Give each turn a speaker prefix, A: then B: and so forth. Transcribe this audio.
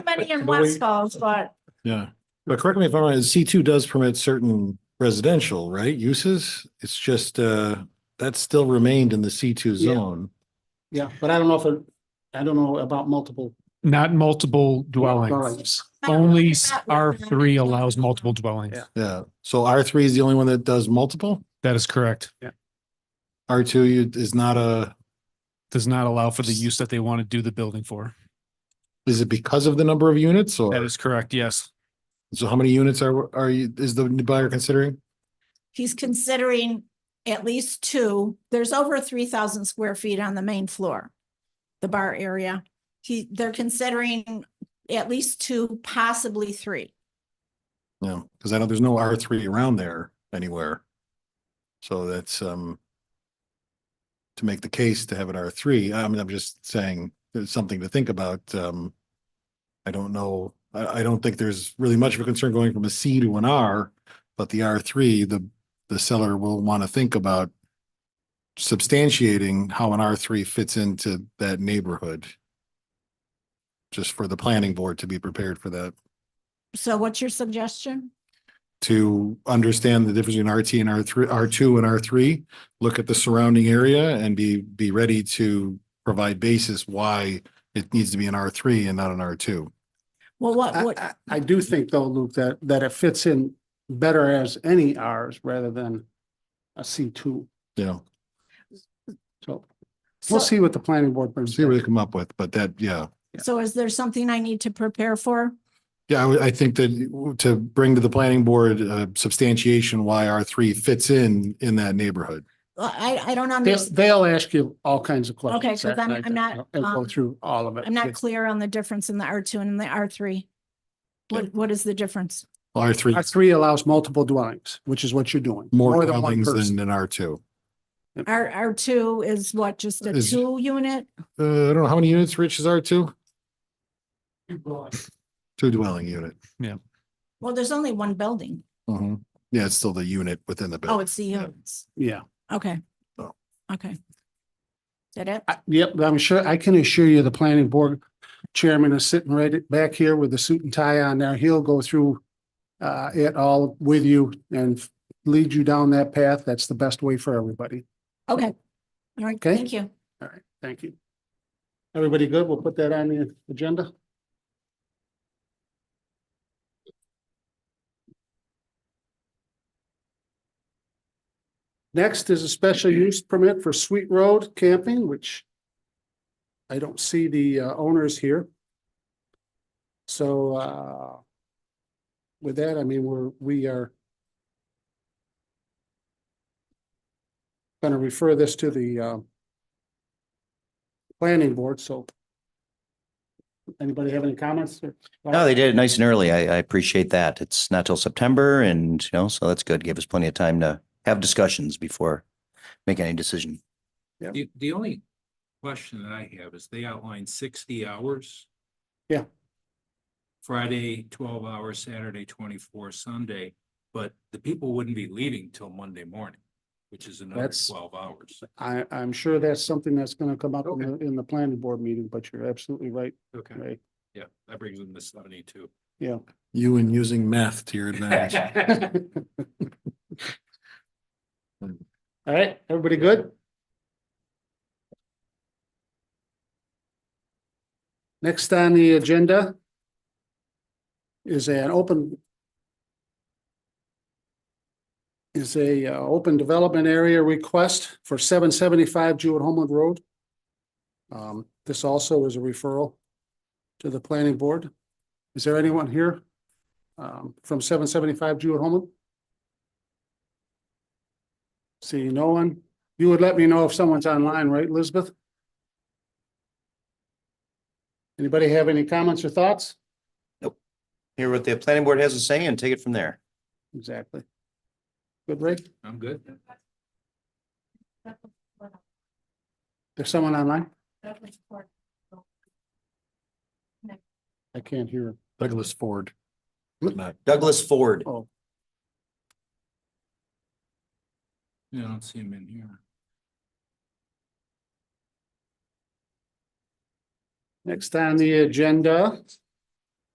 A: many in
B: But the way-
A: West Falls, but
B: Yeah, but correct me if I'm wrong, C two does permit certain residential, right, uses? It's just, uh, that still remained in the C two
C: Yeah.
B: zone.
C: Yeah, but I don't know if, it- I don't know about multiple.
D: Not multiple dwellings.
C: dwellings.
D: Only
A: Not-
D: R three allows multiple dwellings.
C: Yeah.
B: Yeah, so R three is the only one that does multiple?
D: That is correct.
B: R two is not a,
D: Does not allow for the use that they want to do the building for.
B: is it because of the number of units
D: That
B: or?
D: is correct, yes.
B: So how many units are, are you, is the buyer considering?
A: he's considering at least two. There's over three thousand square feet on the main floor, the bar area. He, they're considering at least two, possibly three.
B: No, because I know there's no R three around there anywhere. So that's, um, to make the case to have an R three, I mean, I'm just saying, there's something to think about, um. I don't know, I, I don't think there's really much of a concern going from a C to an R, but the R three, the, the seller will want to think about substantiating how an R three fits into that neighborhood. Just for the planning board to be prepared for that
A: So what's your suggestion?
B: to understand the difference between RT and R three, R two and R three, look at the surrounding area and be, be ready to provide basis why it needs to be an R three and not an R two.
A: Well, what,
C: I,
A: what,
C: I, I do think though, Luke, that, that it fits in better as any Rs rather than a C two.
B: You know,
C: So
A: so,
C: we'll see what the planning board brings.
B: see what they
C: back.
B: come up with, but that, yeah.
A: so is there something I need to prepare for?
B: Yeah, I, would- I think that to bring to the planning board uh, substantiation why R three fits in, in that neighborhood.
A: I, I don't
C: They'll,
A: understand.
C: they'll ask you all kinds of questions.
A: 'cause
C: that
A: I'm-
C: night
A: I'm not,
C: And go
A: um,
C: through all of it.
A: I'm not clear on the difference in the R two and the R three. What, what is the difference?
B: R three,
C: R three allows multiple dwellings, which is what you're doing.
B: more
C: than one
B: dwellings
C: person.
B: than an R two.
A: R, R two is what, just a
B: Is-
A: two unit?
B: Uh, I don't know, how many units, Rich, is R two? Two dwelling unit.
A: Well, there's only one building.
C: Mm-hmm.
B: Mhm. Yeah, it's still the unit within the
A: Oh,
B: building.
A: it's the units.
C: Yeah,
A: Okay.
B: Oh.
A: Okay. That it?
C: I- yep, I'm sure, I can assure you the planning board chairman is sitting right back here with a suit and tie on there. He'll go through uh, it all with you and lead you down that path. That's the best way for everybody.
A: Okay. All right,
C: Okay.
A: thank you.
C: All right, thank you. Everybody good? We'll put that on the agenda. Next is a special use permit for Sweet Road Camping, which I don't see the uh, owners here. So uh, with that, I mean, we're, we are going to refer this to the uh, planning board, so. Anybody have any comments? or-
E: No, they did it nice and early. I, I appreciate that. It's not till September and, you know, so that's good. Gave us plenty of time to have discussions before making any decision.
F: The, the only question that I have is they outlined sixty hours.
C: Yeah.
F: Friday, twelve hours, Saturday, twenty-four, Sunday, but the people wouldn't be leaving till Monday morning, which is another
C: That's-
F: twelve hours.
C: I, I'm sure that's something that's gonna come up in the, in the planning board meeting, but you're absolutely right,
F: Okay.
C: Ray.
F: Yeah, that brings them to seventy-two.
C: Yeah.
B: You and using math to your advantage.
C: All right, everybody good? Next on the agenda is an open is a uh, open development area request for seven seventy-five Jewett Homeland Road. Um, this also is a referral to the planning board. Is there anyone here um, from seven seventy-five Jewett Homeland? See, no one. You would let me know if someone's online, right, Elizabeth? Anybody have any comments or thoughts?
E: Hear what the planning board has to say and take it from there.
C: Exactly. Good, Ray?
F: I'm good.
C: There's someone online? I can't hear.
B: Douglas Ford.
C: Hmm?
B: Not-
E: Douglas Ford.
C: Oh,
F: Yeah, I don't see them in here.
C: next on the agenda